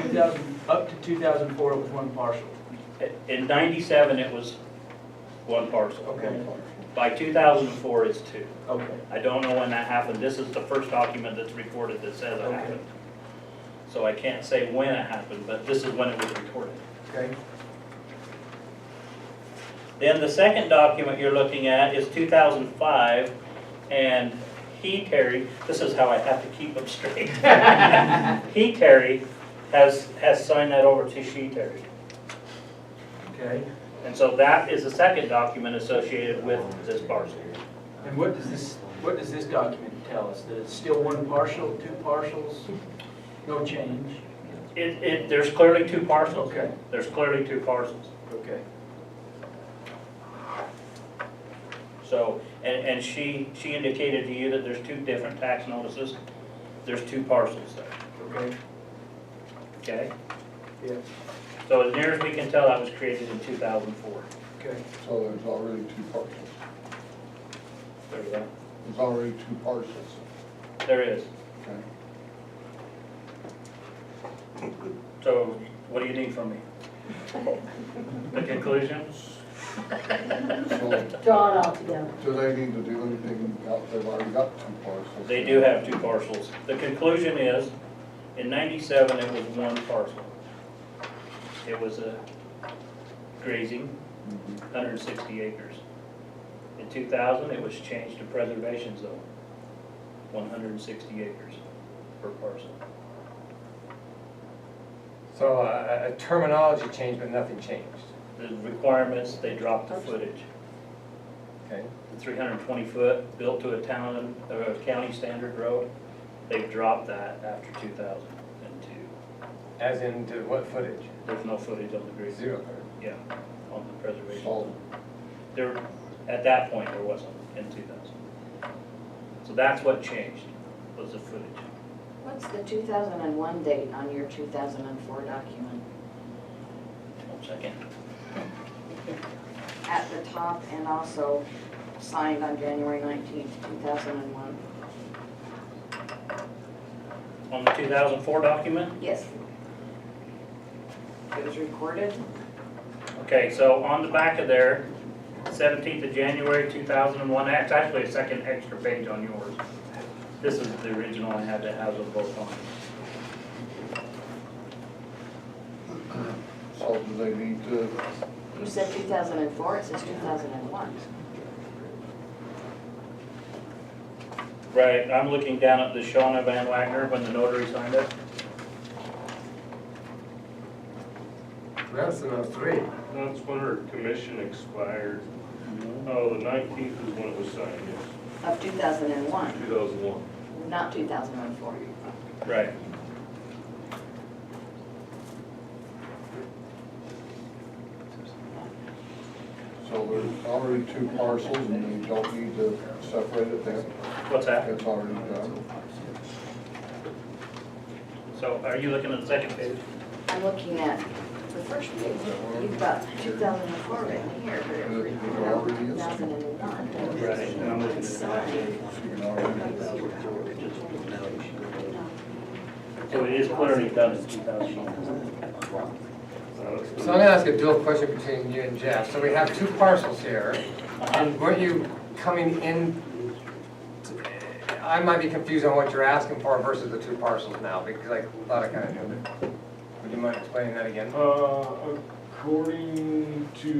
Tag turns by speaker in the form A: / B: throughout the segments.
A: 2000, up to 2004, it was one parcel.
B: In ninety-seven, it was one parcel.
A: Okay.
B: By two thousand and four, it's two.
A: Okay.
B: I don't know when that happened. This is the first document that's recorded that says it
A: Okay.
B: happened. So I can't say when it happened, but this is when it was recorded.
A: Okay.
B: Then the second document you're looking at is two thousand and five, and he, Terry, this is how I have to keep them straight. He, Terry, has, has signed that over to she, Terry.
A: Okay.
B: And so that is the second document associated with this parcel.
A: And what does this, what does this document tell us? That it's still one parcel, two parcels, no change?
B: It, it, there's clearly two parcels.
A: Okay.
B: There's clearly two parcels.
A: Okay.
B: So, and, and she, she indicated to you that there's two different tax notices. There's two parcels there,
A: Okay.
B: okay?
A: Yeah.
B: So as near as we can tell, that was created in two thousand four.
A: Okay.
C: So there's already two parcels.
B: There you go.
C: There's already two parcels,
B: There is.
C: okay?
B: So what do you need from me? The conclusions?
C: So
D: Draw it all together.
C: do they need to do anything about, they've already got two parcels?
B: They do have two parcels. The conclusion is, in ninety-seven, it was one parcel. It was a grazing,
C: Mhm.
B: hundred and sixty acres. In two thousand, it was changed to preservation zone, one hundred and sixty acres per parcel.
E: So uh, a terminology change, but nothing changed,
B: The requirements, they dropped the footage,
E: okay?
B: the three hundred and twenty foot, built to a town, or a county standard road, they've dropped that after two thousand and two.
E: As in to what footage?
B: There's no footage on the grazing.
E: Zero.
B: Yeah, on the preservation.
C: So
B: There, at that point, there wasn't in two thousand. So that's what changed, was the footage.
F: What's the 2001 date on your 2004 document?
B: One second.
F: At the top and also signed on January 19th, 2001?
B: On the two thousand four document,
F: Yes. It was recorded?
B: okay, so on the back of there, seventeenth of January, two thousand and one, that's actually a second extra page on yours. This is the original I had to have them both on.
C: so do they need to,
F: You said 2004, it says 2001.
B: Right, I'm looking down at the Shawna Van Wagner when the notary signed it.
E: That's enough three.
G: That's when her commission expired. Oh, the nineteenth is when it was signed, yes,
F: Of 2001,
G: two thousand one.
F: not 2004.
B: Right.
C: so there's already two parcels and you don't need to separate it then?
B: What's that?
C: It's already done.
B: So are you looking at the second page?
F: I'm looking at the first page. You've got 2004 written here, but it was recorded in 2001.
B: Right, and I'm looking at
F: Signed.
C: So you can already-
B: So it is clearly done in two thousand.
E: So I'm gonna ask a dual question between you and Jeff. So we have two parcels here, and weren't you coming in? I might be confused on what you're asking for versus the two parcels now, because I thought I kind of knew it. Would you mind explaining that again?
G: Uh, according to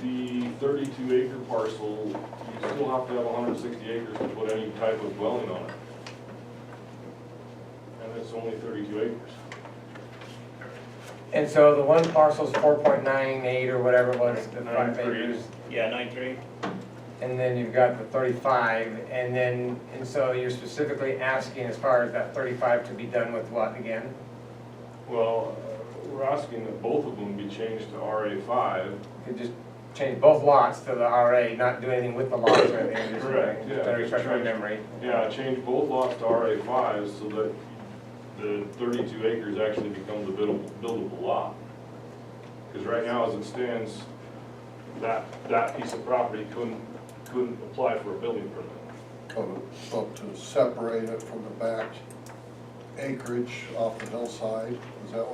G: the thirty-two acre parcel, you still have to have hundred and sixty acres to put any type of dwelling on it. And it's only thirty-two acres.
E: And so the one parcel's four point nine eight or whatever it was, the five
G: Nine-three.
E: acres.
B: Yeah, nine-three.
E: And then you've got the thirty-five, and then, and so you're specifically asking as far as that thirty-five to be done with what again?
G: Well, uh, we're asking that both of them be changed to RA five.
E: You just change both lots to the RA, not do anything with the lots or anything, just.
G: Correct, yeah,
E: Better
G: just
E: refresh my
G: change-
E: memory.
G: Yeah, change both lots to RA fives so that the thirty-two acres actually becomes a buildable, buildable lot. Because right now, as it stands, that, that piece of property couldn't, couldn't apply for a building permit.
C: So so to separate it from the back acreage off the hillside